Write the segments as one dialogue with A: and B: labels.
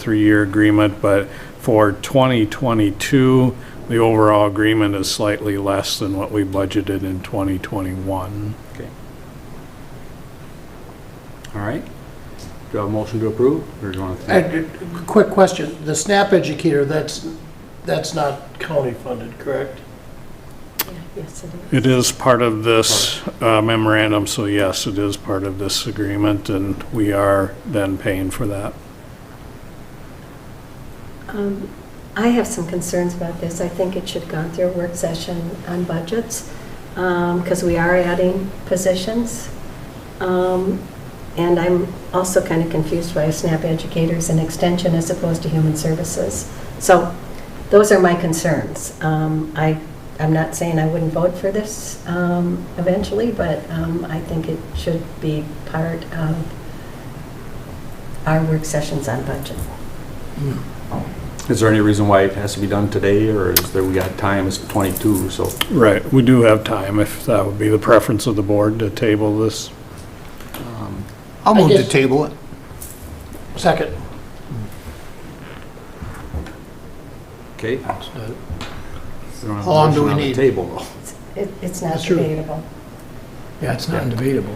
A: three-year agreement, but for 2022, the overall agreement is slightly less than what we budgeted in 2021.
B: All right. Do I have a motion to approve, or do you want to?
C: And, uh, Quick question, the SNAP educator, that's, that's not county funded, correct?
D: Yes, it is.
A: It is part of this uh, memorandum, so yes, it is part of this agreement, and we are then paying for that.
D: Um, I have some concerns about this. I think it should have gone through a work session on budgets, because we are adding positions. Um, And I'm also kind of confused why SNAP educators and extension as opposed to human services. So those are my concerns. Um, I, I'm not saying I wouldn't vote for this um, eventually, but um, I think it should be part of our work sessions on budget.
B: Is there any reason why it has to be done today, or is there, we got time, it's 22, so.
A: Right, we do have time, if that would be the preference of the board to table this.
B: um,
E: I'll
C: I
E: move to
C: guess-
E: table it.
C: Second.
B: Okay.
E: How long do we need?
B: Table, though.
D: It- It's not
C: That's true.
D: debatable.
E: Yeah, it's not debatable.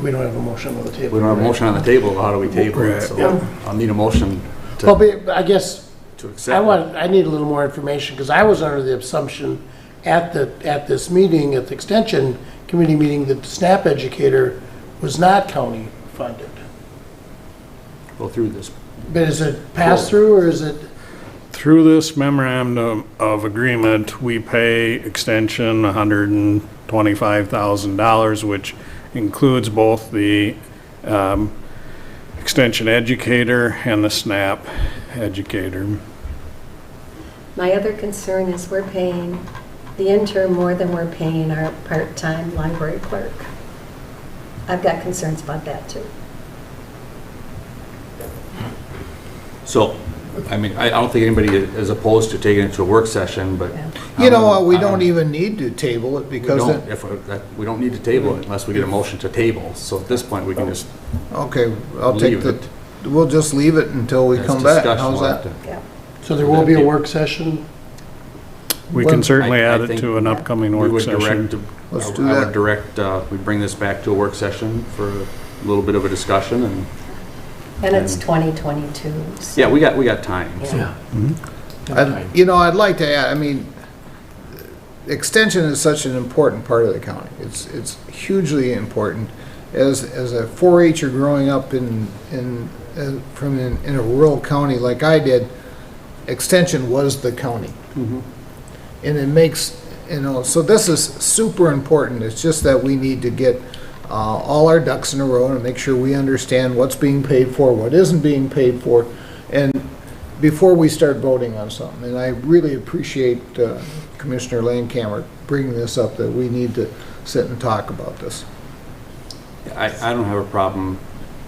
C: We don't have a motion on the table.
B: We don't have a
C: right?
B: motion on the table, how do we table it? So
C: Yeah.
B: I'll need a motion
C: Well,
B: to
C: but I guess,
B: to accept.
C: I
B: it.
C: want, I need a little more information, because I was under the assumption at the, at this meeting, at the extension committee meeting, that SNAP educator was not county funded.
B: Go through this.
C: But is it pass-through, or is it,
A: Through this memorandum of agreement, we pay extension $125,000, which includes both the um, extension educator and the SNAP educator.
D: My other concern is we're paying the intern more than we're paying our part-time library clerk. I've got concerns about that, too.
B: So, I mean, I I don't think anybody is opposed to taking it to a work session, but.
D: Yeah.
B: I
E: You know what, we
B: Um, I
E: don't even need to table it
B: We
E: because,
B: don't,
E: the-
B: if, we're- that- we don't need to table it unless we get a motion to table. So at this point, we can just,
E: okay, I'll take
B: Leave
E: the, we'll just leave it until we
B: there's
E: come back.
B: discussion.
E: How's
B: We'll have
E: that?
B: to-
D: Yeah.
C: so there will be a work session?
A: We
E: Well,
A: can certainly
B: I- I
A: add it
B: think
A: to an upcoming
B: We
A: work
B: would
A: session.
B: direct,
E: Let's
B: I-
E: do
B: I would
E: that.
B: direct, uh, we bring this back to a work session for a little bit of a discussion and,
D: And it's 2022. so-
B: Mm. yeah, we got, we got time. so.
E: I'd- You know, I'd like to add, I mean, extension is such an important part of the county. It's, it's hugely important. As, as a 4-H'er growing up in, in, uh, from, in in a rural county like I did, extension was the county. And it makes, you know, so this is super important. It's just that we need to get uh, all our ducks in a row and make sure we understand what's being paid for, what isn't being paid for, and before we start voting on something. And I really appreciate uh, Commissioner Landcamer bringing this up, that we need to sit and talk about this.
B: I, I don't have a problem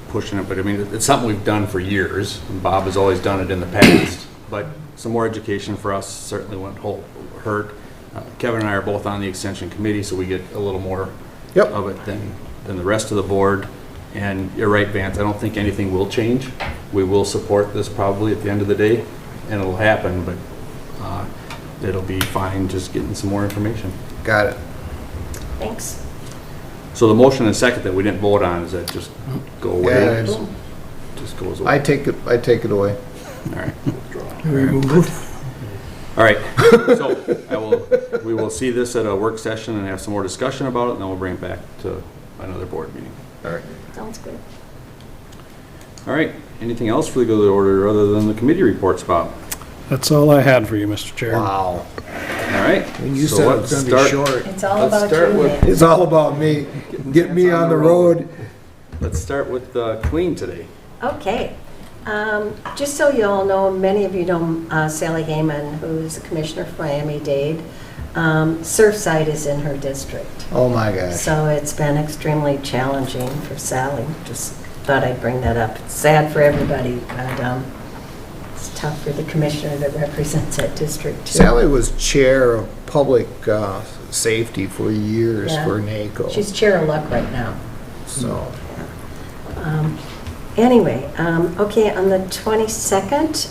B: pushing it, but I mean, it's something we've done for years. and Bob has always done it in the past, but some more education for us certainly wouldn't hold, hurt. Uh, Kevin and I are both on the extension committee, so we get a little more
E: Yep.
B: of it than, than the rest of the board. And you're right, Vance, I don't think anything will change. We will support this probably at the end of the day, and it'll happen, but, uh, it'll be fine just getting some more information.
E: Got it.
D: Thanks.
B: So the motion and second that we didn't vote on, is that just go
E: Yeah,
B: away?
E: it's-
B: Just goes
E: I
B: away?
E: take it, I take it away.
B: All right. All right, so I will, we will see this at a work session and have some more discussion about it, and then we'll bring it back to another board meeting.
E: All right.
D: Sounds good.
B: All right, anything else for the good of the order other than the committee reports, Bob?
A: That's all I had for you, Mr. Chair.
E: Wow.
B: All right.
E: When you
B: so
E: said
B: let's
E: it's going to be
B: start-
E: short.
D: It's all
B: Let's
D: about
B: start
D: you,
B: with-
D: Nick.
E: It's all about me. Get me on the road.
B: Let's start with uh, Clean today.
D: Okay. Um, Just so you all know, many of you know uh, Sally Hayman, who's a commissioner for Miami-Dade. Um, Surfside is in her district.
E: Oh, my gosh.
D: So it's been extremely challenging for Sally. Just thought I'd bring that up. It's sad for everybody, but um, it's tough for the commissioner that represents that district, too.
E: Sally was chair of public uh, safety for years
D: Yeah.
E: for NACO,
D: She's chair of luck right now.
E: so.
D: Um, Anyway, um, okay, on the 22nd,